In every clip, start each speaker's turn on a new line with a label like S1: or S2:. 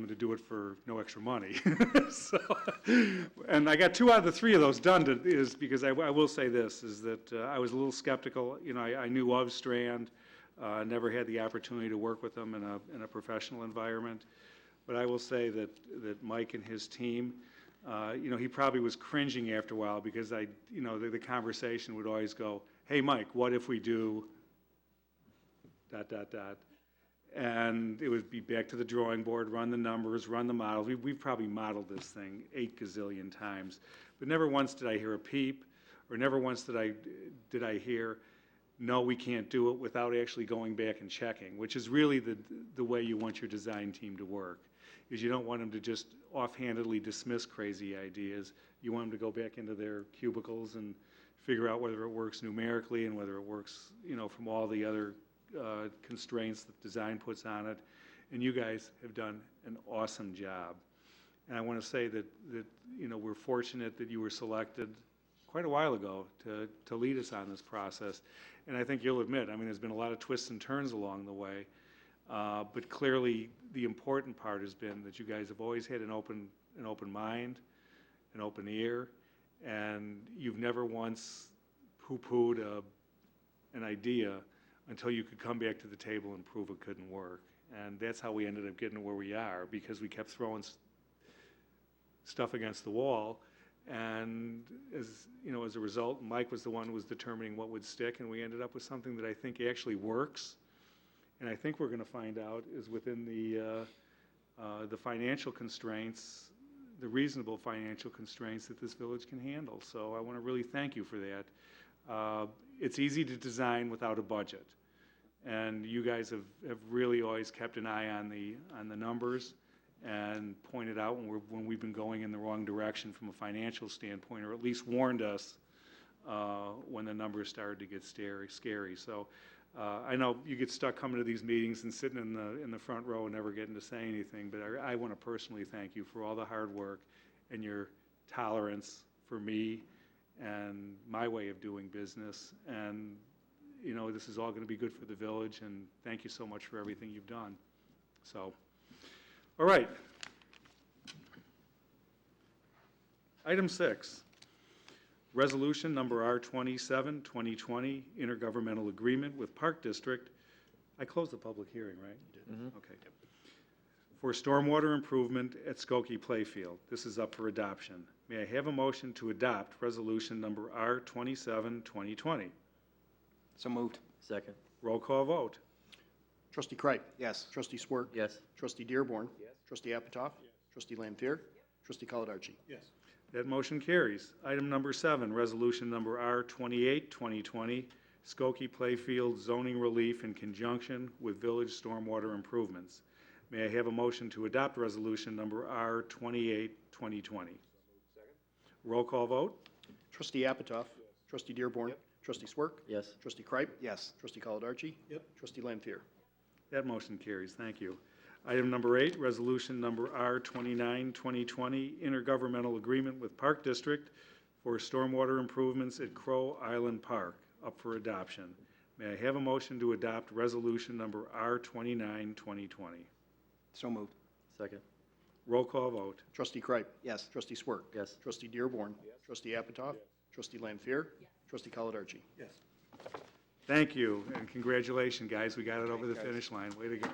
S1: them to do it for no extra money. So, And I got two out of the three of those done to- is because I, w- I will say this, is that uh, I was a little skeptical. You know, I, I knew of Strand, uh, never had the opportunity to work with them in a, in a professional environment. But I will say that, that Mike and his team, uh, you know, he probably was cringing after a while because I, you know, the, the conversation would always go, hey, Mike, what if we do dot, dot, dot. And it would be back to the drawing board, run the numbers, run the models. We, we've probably modeled this thing eight gazillion times. But never once did I hear a peep, or never once did I, did I hear, no, we can't do it without actually going back and checking, which is really the, the way you want your design team to work. Is you don't want them to just offhandedly dismiss crazy ideas. You want them to go back into their cubicles and figure out whether it works numerically and whether it works, you know, from all the other uh, constraints that design puts on it. And you guys have done an awesome job. And I want to say that, that, you know, we're fortunate that you were selected quite a while ago to, to lead us on this process. And I think you'll admit, I mean, there's been a lot of twists and turns along the way. Uh, But clearly, the important part has been that you guys have always had an open, an open mind, an open ear, and you've never once poo-pooed a, an idea until you could come back to the table and prove it couldn't work. And that's how we ended up getting to where we are, because we kept throwing s- stuff against the wall. And as, you know, as a result, Mike was the one who was determining what would stick, and we ended up with something that I think actually works. And I think we're gonna find out is within the, uh, uh, the financial constraints, the reasonable financial constraints that this village can handle. So I wanna really thank you for that. Uh, It's easy to design without a budget. And you guys have, have really always kept an eye on the, on the numbers and pointed out when we're, when we've been going in the wrong direction from a financial standpoint, or at least warned us uh, when the numbers started to get scary, scary. So uh, I know you get stuck coming to these meetings and sitting in the, in the front row and never getting to say anything, but I, I want to personally thank you for all the hard work and your tolerance for me and my way of doing business. And, you know, this is all going to be good for the village, and thank you so much for everything you've done. So, all right. Item six, resolution number R 27 2020 intergovernmental agreement with Park District. I closed the public hearing, right? You did. Okay. For stormwater improvement at Skokie Playfield. This is up for adoption. May I have a motion to adopt resolution number R 27 2020?
S2: So moved.
S3: Second.
S1: Roll call vote.
S4: Trustee Kreip.
S2: Yes.
S4: Trustee Swerk.
S3: Yes.
S4: Trustee Dearborn. Trustee Apitoff. Trustee Lampier. Trustee Caladarchi.
S1: That motion carries. Item number seven, resolution number R 28 2020, Skokie Playfield zoning relief in conjunction with village stormwater improvements. May I have a motion to adopt resolution number R 28 2020? Roll call vote?
S4: Trustee Apitoff. Trustee Dearborn. Trustee Swerk.
S3: Yes.
S4: Trustee Kreip.
S2: Yes.
S4: Trustee Caladarchi. Trustee Lampier.
S1: That motion carries. Thank you. Item number eight, resolution number R 29 2020, intergovernmental agreement with Park District for stormwater improvements at Crow Island Park, up for adoption. May I have a motion to adopt resolution number R 29 2020?
S2: So moved.
S3: Second.
S1: Roll call vote.
S4: Trustee Kreip.
S2: Yes.
S4: Trustee Swerk.
S3: Yes.
S4: Trustee Dearborn. Trustee Apitoff. Trustee Lampier. Trustee Caladarchi.
S1: Thank you, and congratulations, guys. We got it over the
S2: Thanks, guys.
S1: finish line. Way to go.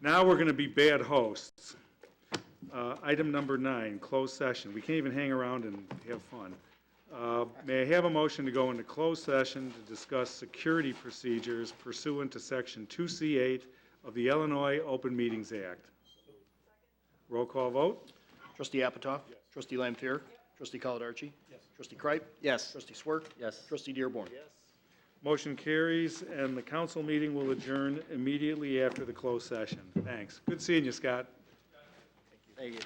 S1: Now we're going to be bad hosts. Uh, Item number nine, closed session. We can't even hang around and have fun. Uh, May I have a motion to go into closed session to discuss security procedures pursuant to Section 2C8 of the Illinois Open Meetings Act? Roll call vote?
S4: Trustee Apitoff. Trustee Lampier. Trustee Caladarchi. Trustee Kreip.
S2: Yes.
S4: Trustee Swerk.
S3: Yes.
S4: Trustee Dearborn.
S1: Motion carries, and the council meeting will adjourn immediately after the closed session. Thanks. Good seeing you, Scott.
S3: Thank you.